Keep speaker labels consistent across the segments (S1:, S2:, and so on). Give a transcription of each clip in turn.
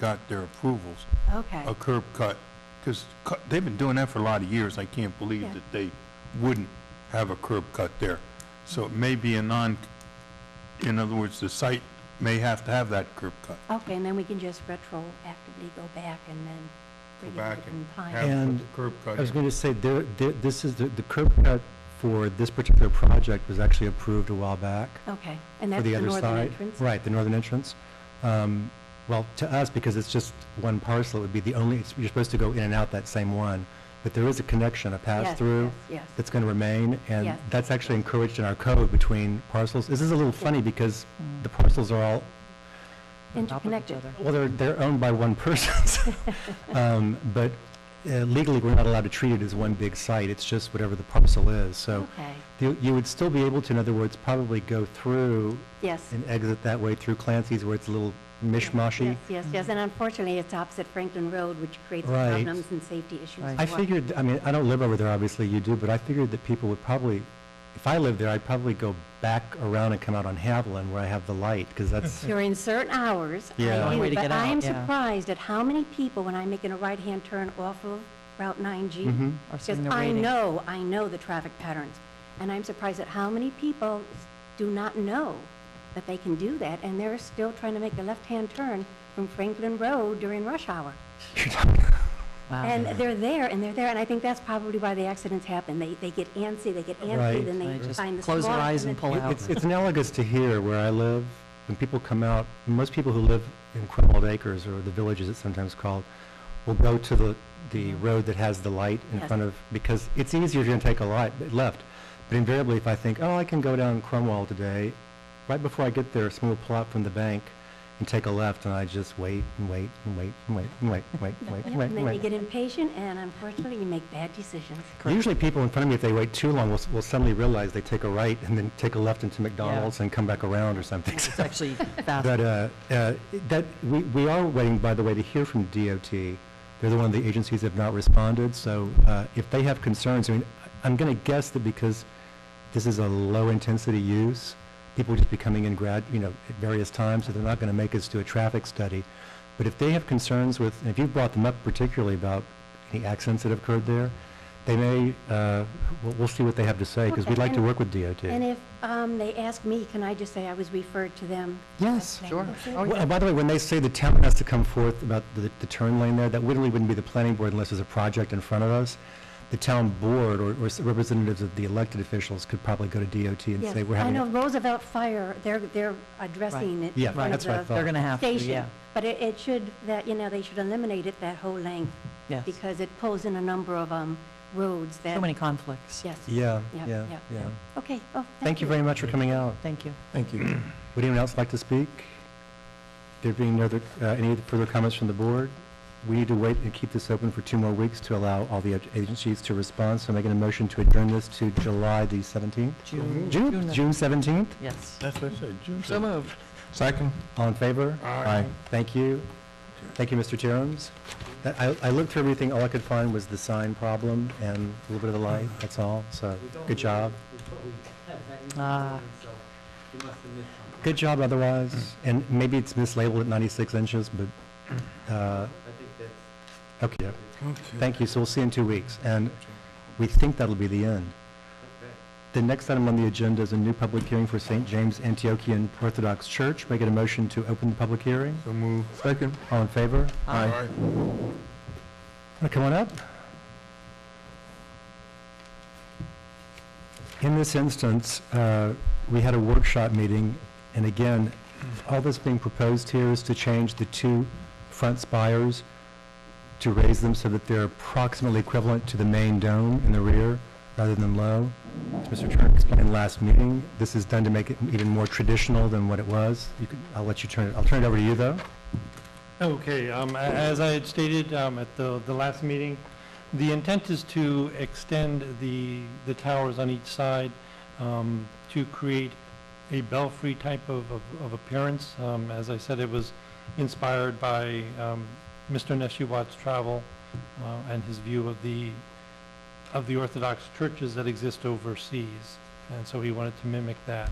S1: got their approvals,
S2: Okay,
S1: a curb cut, because they've been doing that for a lot of years. I can't believe
S2: Yeah.
S1: that they wouldn't have a curb cut there. So it may be a non, in other words, the site may have to have that curb cut.
S2: okay, and then we can just retroactively go back and then bring
S1: Go
S2: it
S1: back
S2: to
S1: and
S2: compliance.
S1: have it
S3: And
S1: with the curb cut.
S3: I was going to say, there, there- this is, the the curb cut for this particular project was actually approved a while back.
S2: Okay, and
S3: for
S2: that's the
S3: other
S2: northern
S3: side,
S2: entrance?
S3: Right, the northern entrance. Um, Well, to us, because it's just one parcel, it would be the only, it's- you're supposed to go in and out that same one, but there is a connection, a
S2: Yes,
S3: pass-through
S2: Yes, yes.
S3: that's going to remain, and
S2: Yes.
S3: that's actually encouraged in our code between parcels. This is a little funny because the parcels are all
S2: interconnected.
S3: well, they're, they're owned by one person, so, um, but uh, legally, we're not allowed to treat it as one big site, it's just whatever the parcel is, so
S2: Okay,
S3: you, you would still be able to, in other words, probably go through
S2: yes.
S3: and exit that way through Clancy's where it's a little
S2: Yes,
S3: mishmashy.
S2: yes, yes, and unfortunately, it's opposite Franklin Road, which creates
S3: Right.
S2: problems and safety issues.
S4: Right.
S3: I
S2: for-
S3: figured, I mean, I don't live over there, obviously, you do, but I figured that people would probably, if I lived there, I'd probably go back around and come out on Haviland where I have the light, because that's,
S2: During certain hours, I
S3: Yeah. Long
S4: way
S2: do,
S4: to
S2: but
S4: get
S2: I
S4: out,
S2: am
S4: yeah.
S2: surprised at how many people, when I'm making a right-hand turn off of Route 9G,
S3: Mhm.
S4: Or
S2: Because
S4: sitting there
S2: I
S4: waiting.
S2: know, I know the traffic patterns, and I'm surprised at how many people s- do not know that they can do that, and they're still trying to make a left-hand turn from Franklin Road during rush hour.
S4: Wow.
S2: And they're there, and they're there, and I think that's probably why the accidents happen. They, they get antsy, they get antsy,
S3: Right.
S2: then
S4: They
S2: they
S4: just
S2: find the spot.
S4: close their eyes and
S2: then-
S4: pull out.
S3: it's, it's analogous to here where I live, when people come out, most people who live in Cromwell Acres, or the villages it's sometimes called, will go to the, the
S4: Mm-hmm.
S3: road that has the light in
S2: Yes.
S3: front of, because it's easier if you're going to take a light, left. But invariably, if I think, oh, I can go down Cromwell today, right before I get there, someone will pull out from the bank and take a left, and I just wait and wait and wait and wait and wait and wait and wait and wait.
S2: And
S3: and
S2: then you
S3: wait.
S2: get impatient, and unfortunately, you make bad decisions.
S3: Usually people in front of me, if they wait too long, will, s- will suddenly realize they take a right and then take a left into McDonald's and come back around or something.
S4: It's actually
S3: But
S4: fast.
S3: uh, uh, that, we we are waiting, by the way, to hear from DOT. They're the one of the agencies that have not responded, so uh, if they have concerns, I mean, I'm going to guess that because this is a low-intensity use, people will just be coming in grad, you know, at various times, so they're not going to make us do a traffic study. But if they have concerns with, and if you've brought them up particularly about any accidents that have occurred there, they may, uh, we'll- we'll see what they have to say, because
S2: Okay,
S3: we'd like to
S2: and-
S3: work with DOT.
S2: And if um, they ask me, can I just say I was referred to them?
S3: Yes,
S2: That's
S4: sure.
S2: it.
S4: Oh,
S3: Well, and by the way, when they say the town has to come forth about the, the turn lane there, that literally wouldn't be the planning board unless there's a project in front of us. The town board or, or representatives of the elected officials could probably go to DOT and
S2: Yes,
S3: say, we're
S2: I
S3: having.
S2: know
S3: a-"
S2: Roosevelt Fire, they're, they're addressing it.
S3: Yeah,
S2: in front
S3: that's
S2: of
S3: what I
S2: the
S3: thought.
S4: They're going to have to,
S2: Station.
S4: yeah.
S2: But it, it should, that, you know, they should eliminate it that whole length,
S4: Yes.
S2: because it pulls in a number of, um, roads that.
S4: So many conflicts.
S2: Yes.
S3: Yeah,
S2: Yeah,
S3: yeah,
S2: yeah.
S3: yeah.
S2: Okay, oh,
S3: Thank you very much for coming out.
S4: Thank you.
S3: Thank you. Would anyone else like to speak? There being no other, uh, any further comments from the board? We need to wait and keep this open for two more weeks to allow all the agencies to respond. So I'm making a motion to adjourn this to July the 17th?
S4: June.
S3: June, June 17th?
S4: Yes.
S1: That's what I said, June
S4: So moved.
S1: Second.
S3: All in favor? Aye. Thank you. Thank you, Mr. Terums. That- I, I looked through everything, all I could find was the sign problem and a little bit of the light, that's all, so, good job.
S4: Ah.
S3: Good job otherwise, and maybe it's mislabeled at 96 inches, but, uh, okay, thank you, so we'll see you in two weeks, and we think that'll be the end. The next item on the agenda is a new public hearing for St. James Antiochian Orthodox Church. Make it a motion to open the public hearing.
S1: So move. Second.
S3: All in favor?
S4: Aye.
S3: Wanna Come on up. In this instance, uh, we had a workshop meeting, and again, all that's being proposed here is to change the two front spires, to raise them so that they're approximately equivalent to the main dome in the rear, rather than low. As Mr. Turner explained last meeting, this is done to make it even more traditional than what it was. You could, I'll let you turn it, I'll turn it over to you, though.
S5: Okay, um, a- as I had stated um, at the, the last meeting, the intent is to extend the, the towers on each side um, to create a belfry type of, of- of appearance. Um, As I said, it was inspired by um, Mr. Neshiwat's travel uh, and his view of the, of the Orthodox churches that exist overseas. And so he wanted to mimic that.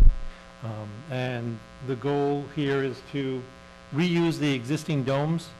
S5: Um, And the goal here is to reuse the existing domes